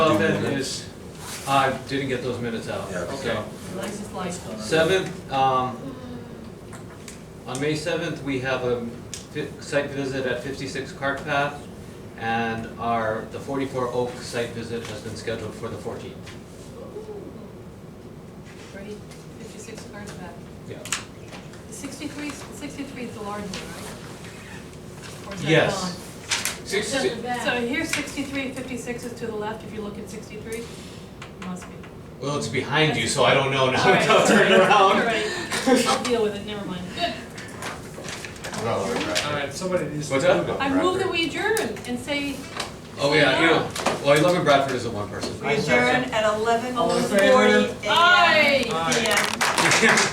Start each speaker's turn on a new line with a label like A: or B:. A: seven
B: minutes.
A: is, I didn't get those minutes out.
B: Yeah, okay.
A: So,
C: License license.
A: Seventh, um, on May seventh, we have a fi- site visit at fifty-six Cart Path, and our, the forty-four Oak site visit has been scheduled for the fourteenth.
C: Great, fifty-six cars back.
A: Yeah.
C: The Sixty-three, sixty-three is the large one, right? Or is that
A: Yes.
D: Six-
A: Six,
D: That's at the
C: gone? So
D: back.
C: here's sixty-three, fifty-six is to the left, if you look at sixty-three, must be.
A: well, it's behind you, so I don't know now,
C: Alright,
A: I'll turn
C: alright,
A: around.
C: alright. I'll deal with it, never mind.
E: All right, somebody needs to.
A: What's that?
E: move it.
C: I move that we adjourn and say,
A: Oh, yeah, you know, well, eleven Bradford is a one person.
F: We adjourn at eleven
E: All in
F: forty
E: favor?
F: AM.
C: aye!
E: Aye.
F: PM.